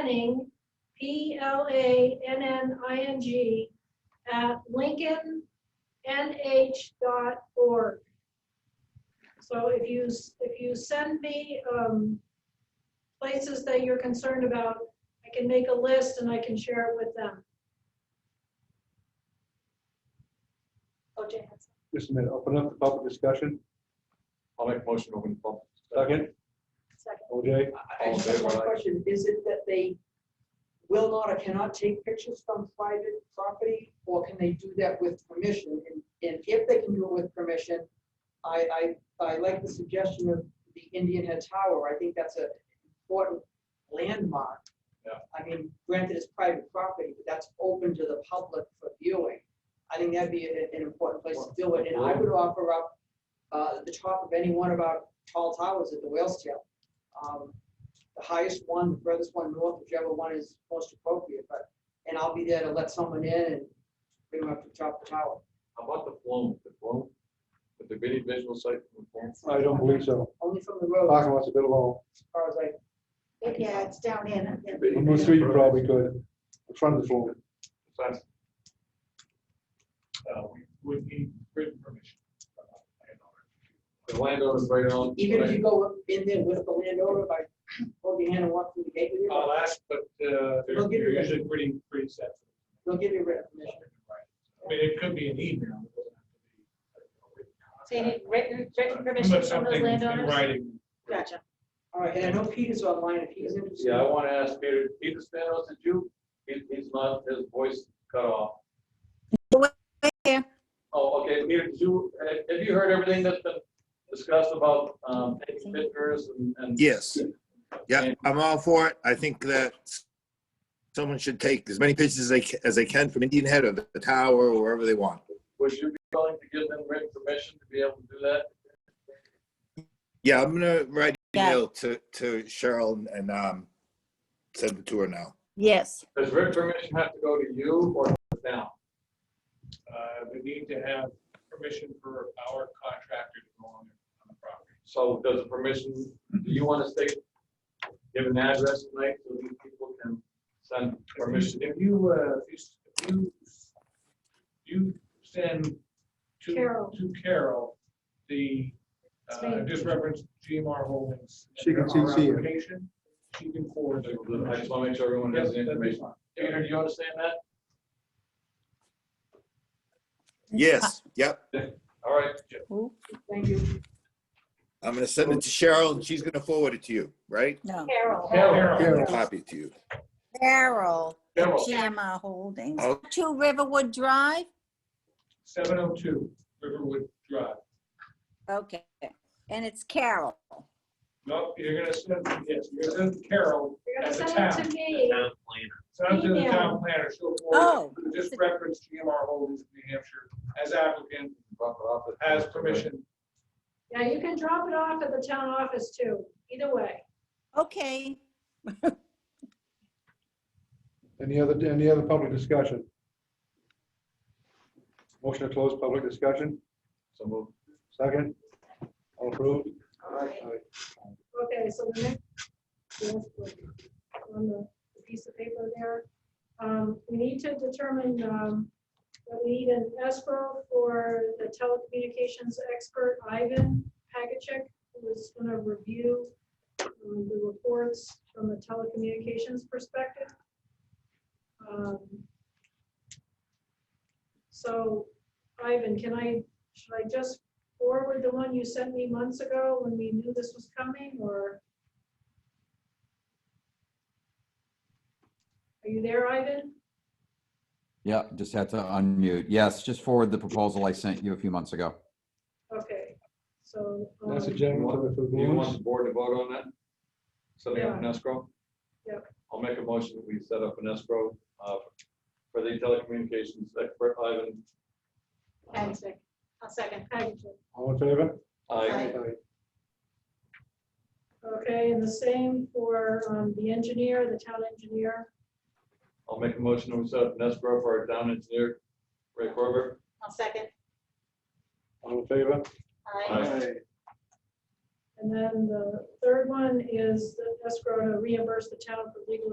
planning, P L A N N I N G, at Lincoln nh.org. So if you, s- if you send me um, places that you're concerned about, I can make a list and I can share it with them. Oh, Jan. Just a minute, open up the public discussion. I'll make a motion to open the public. Second, second. OJ, I just have one question. Is it that they will not or cannot take pictures from private property? Or can they do that with permission? And and if they can do it with permission, I, I, I like the suggestion of the Indian Head Tower. I think that's an important landmark. Yeah. I mean, granted, it's private property, but that's open to the public for viewing. I think that'd be an, an important place to do it. And I would offer up uh, the top of any one of our tall towers at the Whale's Tail. Um, the highest one, the furthest one north, whichever one is most appropriate, but, and I'll be there to let someone in and bring them up to the top of the tower. How about the flume, the flume? With the video visual site from the flume? I don't believe so. Only from the road, as Parking lot's a bit long. far as I, Yeah, it's down in. On Route Three, you probably could, in front of the floor. That's- Uh, we would need written permission. The landowner's right on. even if you go in there with the landowner, if I hold your hand and walk through the gate with you, I'll ask, but uh, they're They'll give you they're that. usually pretty, pretty set. they'll give you written I permission. mean, it could be an email. it doesn't have to be, So you need written, written But permission from something those in landowners? Writing. Gotcha. All right, and I know Peter's online, if he's interested. Yeah, I want to ask Peter, Peter Spanos, did you, he, he's not, his voice cut off. here. Oh, okay, Peter, did you, have- have you heard everything that's been discussed about, um, taking pictures and? and- Yes. Yeah, I'm all for it. I think that someone should take as many pictures as they, ca- as they can from Indian Head or the the tower or wherever they want. Would you be willing to give them written permission to be able to do that? Yeah, I'm gonna write an Yeah. email to, to Cheryl and, um, send it to her now. Yes. Does written permission have to go to you or now? Uh, We need to have permission for our contractor to go on on the property. So does the permission, do you want to state, give an address tonight so these people can send permission? Permission, if you, uh, if you- if you, you send to, Carol. to Carol, the, It's uh, me. just reference GMR Holdings. and She can our CC it. application, She can I forward. the just want to make sure everyone Yes, has that'd the be information. fine. Peter, do you understand that? Yes, yep. All right. Thank you. I'm gonna send it to Cheryl and she's gonna forward it to you, right? No. Oh, Carol. Carol. I'm Carol. gonna copy it to you. Carol, Carol. GMR Holdings, Oh. Two Riverwood Drive? 702 Riverwood Drive. Okay. And it's Carol. No, you're gonna send, yes, you're gonna send Carol You're gonna as a send it town. to me. Send it to the Email. town planner, she'll forward Oh. it. Just reference GMR Holdings of New Hampshire as applicant, Drop it off at- has permission. Yeah, you can drop it off at the town office too, either way. Okay. Any other, any other public discussion? Motion to close public discussion, So move. second. All approved? Okay, so the next. On the the piece of paper there, um, we need to determine, um, that we need an escrow for the telecommunications expert Ivan Pagachek, who is gonna review um, the reports from a telecommunications perspective. Um, So Ivan, can I, should I just forward the one you sent me months ago when we knew this was coming, or? Are you there, Ivan? Yeah, just had to unmute. Yes, just forward the proposal I sent you a few months ago. Okay, so. um, That's a gentleman for the Do you want the balloons. board to vote on that? Setting up an escrow? Yeah. I'll make a motion that we set up an escrow uh, for the telecommunications expert Ivan. Exit. I'll second. All in favor? I, Okay, and the same for um, the engineer, the town engineer. I'll make a motion that we set up an escrow for our town engineer, Ray Corber. I'll second. All in favor? Aye. And then the third one is the escrow to reimburse the town for legal